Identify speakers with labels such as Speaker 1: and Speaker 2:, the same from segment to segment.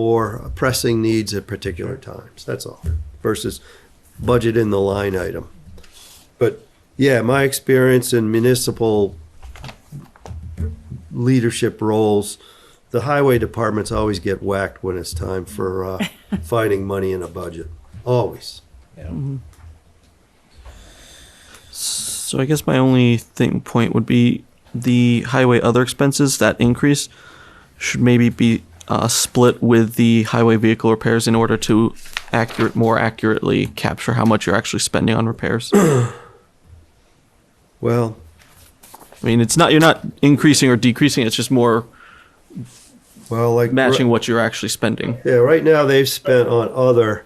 Speaker 1: more pressing needs at particular times, that's all, versus budget in the line item. But, yeah, my experience in municipal leadership roles, the highway departments always get whacked when it's time for, uh, finding money in a budget, always.
Speaker 2: So I guess my only thing point would be the highway other expenses that increase should maybe be uh, split with the highway vehicle repairs in order to accurate more accurately capture how much you're actually spending on repairs. I
Speaker 1: Well,
Speaker 2: mean, it's not you're not increasing or decreasing; it's just more
Speaker 1: well, like.
Speaker 2: matching what you're actually spending.
Speaker 1: Yeah, right now they've spent on other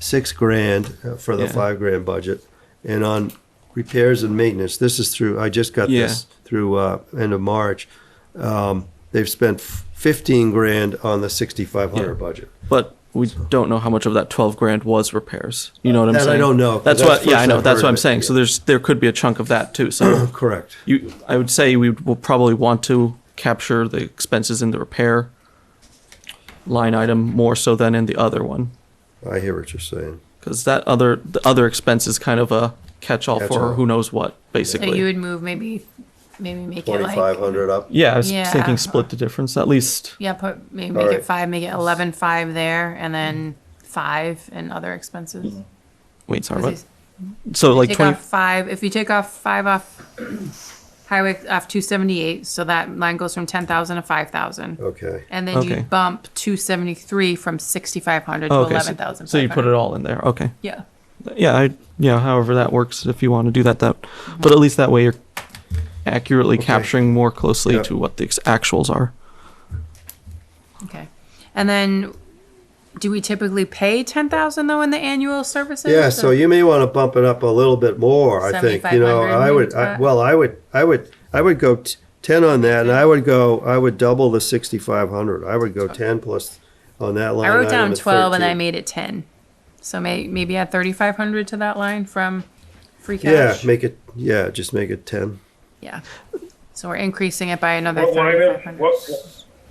Speaker 1: six grand uh, for the
Speaker 2: Yeah.
Speaker 1: five grand budget and on repairs and maintenance. This is through, I just got this through uh, end of March. Um, they've spent f- 15 grand on the 6,500
Speaker 2: Yeah.
Speaker 1: budget.
Speaker 2: But we don't know how much of that twelve grand was repairs. You know what I'm
Speaker 1: That I
Speaker 2: saying?
Speaker 1: don't know, 'cause
Speaker 2: That's,
Speaker 1: that's
Speaker 2: what.
Speaker 1: the
Speaker 2: Yeah,
Speaker 1: first
Speaker 2: I know.
Speaker 1: I've heard
Speaker 2: That's what
Speaker 1: of
Speaker 2: I'm
Speaker 1: it,
Speaker 2: saying. So
Speaker 1: yeah.
Speaker 2: there's there could be a chunk of that too. So
Speaker 1: Correct.
Speaker 2: You, I would say we will probably want to capture the expenses in the repair line item more so than in the other one,
Speaker 1: I hear what you're saying.
Speaker 2: because that other the other expense is kind of a catch-all
Speaker 1: Catch-all.
Speaker 2: for who knows what,
Speaker 3: So
Speaker 2: basically.
Speaker 3: you would move maybe, maybe make it like,
Speaker 1: 2,500 up.
Speaker 2: yeah, I was
Speaker 3: Yeah.
Speaker 2: thinking split the difference at least.
Speaker 3: yeah, put, maybe
Speaker 1: All
Speaker 3: make
Speaker 1: right.
Speaker 3: it five, make it eleven five there and then five and other
Speaker 1: Mm-hmm.
Speaker 3: expenses.
Speaker 2: Wait, sorry, what?
Speaker 3: 'Cause he's-
Speaker 2: So like
Speaker 3: Take
Speaker 2: twenty.
Speaker 3: off five, if you take off five off highway, off two seventy-eight, so that line goes from ten thousand to five thousand.
Speaker 1: Okay.
Speaker 3: And then you
Speaker 2: Okay.
Speaker 3: bump two seventy-three from sixty-five hundred to
Speaker 2: oh, okay,
Speaker 3: eleven
Speaker 2: so,
Speaker 3: thousand.
Speaker 2: so you put it all in there. Okay.
Speaker 3: Yeah,
Speaker 2: Yeah, I yeah. However that works, if you want to do that, that. But at least that way you're accurately capturing more closely
Speaker 1: Yeah.
Speaker 2: to what the ex- actuals are.
Speaker 3: okay. And then, do we typically pay ten thousand though in the annual services?
Speaker 1: Yeah, so you may want to bump it up a little bit more, I think, you know,
Speaker 3: 7,500
Speaker 1: I would,
Speaker 3: maybe,
Speaker 1: I-
Speaker 3: Scott?
Speaker 1: well, I would, I would, I would go t- ten on that, and I would go, I would double the sixty-five hundred, I would go ten plus on that line
Speaker 3: I wrote down
Speaker 1: item at
Speaker 3: twelve and I
Speaker 1: 13.
Speaker 3: made it ten. So may, maybe add thirty-five hundred to that line from free
Speaker 1: Yeah,
Speaker 3: cash.
Speaker 1: make it, yeah, just make it ten.
Speaker 3: Yeah. So we're increasing it by another
Speaker 4: What line
Speaker 3: thirty-five
Speaker 4: is,
Speaker 3: hundred.
Speaker 4: what,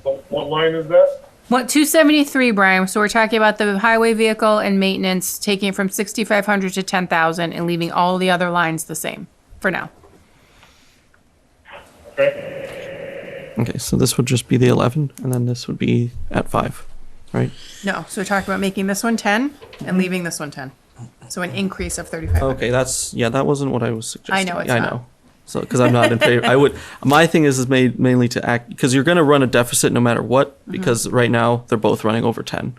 Speaker 4: what, what line is that?
Speaker 3: What, two seventy-three, Brian, so we're talking about the highway vehicle and maintenance, taking it from sixty-five hundred to ten thousand and leaving all the other lines the same, for now.
Speaker 4: Okay,
Speaker 2: Okay, so this would just be the 11, and then this would be at 5, right?
Speaker 3: No, so we're talking about making this one ten and leaving this one ten. So an increase of thirty-five hundred.
Speaker 2: Okay, that's, yeah, that wasn't what I was suggesting.
Speaker 3: know it's
Speaker 2: I
Speaker 3: not.
Speaker 2: know. So, because I'm not in favor, I would, my thing is, is made mainly to act, because you're going to run a deficit no matter what,
Speaker 3: Mm-hmm.
Speaker 2: because right now they're both running over 10.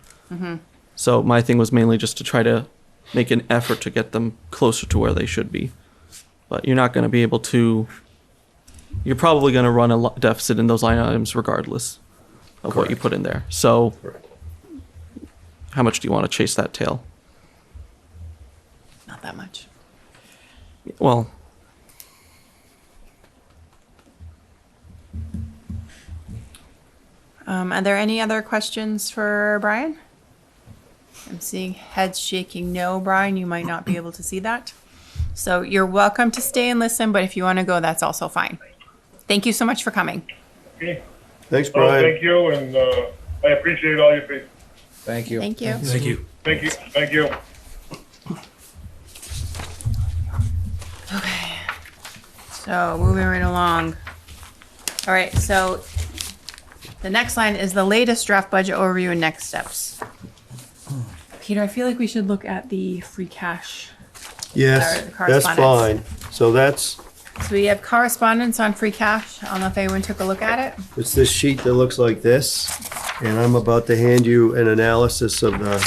Speaker 2: So my thing was mainly just to try to make an effort to get them closer to where they should be. But you're not going to be able to, you're probably going to run a lo- deficit in those line items regardless of what you put in there. So how much do you want to chase that tail?
Speaker 3: Not that much.
Speaker 2: Well,
Speaker 3: Um, are there any other questions for Brian? I'm seeing heads shaking no, Brian, you might not be able to see that. So you're welcome to stay and listen, but if you want to go, that's also fine. Thank you so much for coming.
Speaker 4: okay.
Speaker 1: Thanks,
Speaker 4: Oh,
Speaker 1: Brian.
Speaker 4: thank you, and, uh, I appreciate all your, feed-
Speaker 5: Thank you.
Speaker 3: Thank you.
Speaker 5: Thank you.
Speaker 4: thank you, thank you.
Speaker 3: So moving right along. All right, so the next line is the latest draft budget overview and next steps. Peter, I feel like we should look at the free cash.
Speaker 1: Yes,
Speaker 3: Sorry, the
Speaker 1: that's fine.
Speaker 3: correspondence.
Speaker 1: So that's,
Speaker 3: So we have correspondence on free cash. I don't know if anyone took a look at it.
Speaker 1: it's this sheet that looks like this, and I'm about to hand you an analysis of the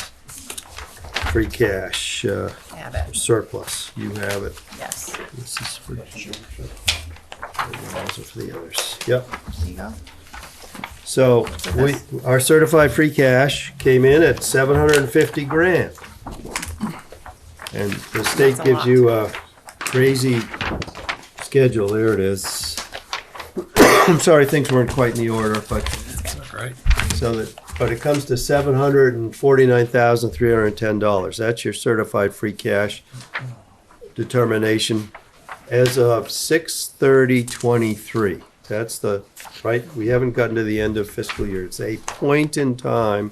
Speaker 1: free cash uh,
Speaker 3: I have it,
Speaker 1: surplus. You have it.
Speaker 3: yes.
Speaker 1: This is for Georgia. And also for the others. Yep.
Speaker 3: There you go.
Speaker 1: So we, our certified free cash came in at seven hundred and fifty grand. And the state
Speaker 3: That's a
Speaker 1: gives
Speaker 3: lot.
Speaker 1: you a crazy schedule. There it is. I'm sorry, things weren't quite in the order, but
Speaker 5: Right.
Speaker 1: so that, but it comes to seven hundred and forty-nine thousand, three hundred and ten dollars. That's your certified free cash determination as of six thirty twenty-three. That's the, right, we haven't gotten to the end of fiscal year. It's a point in time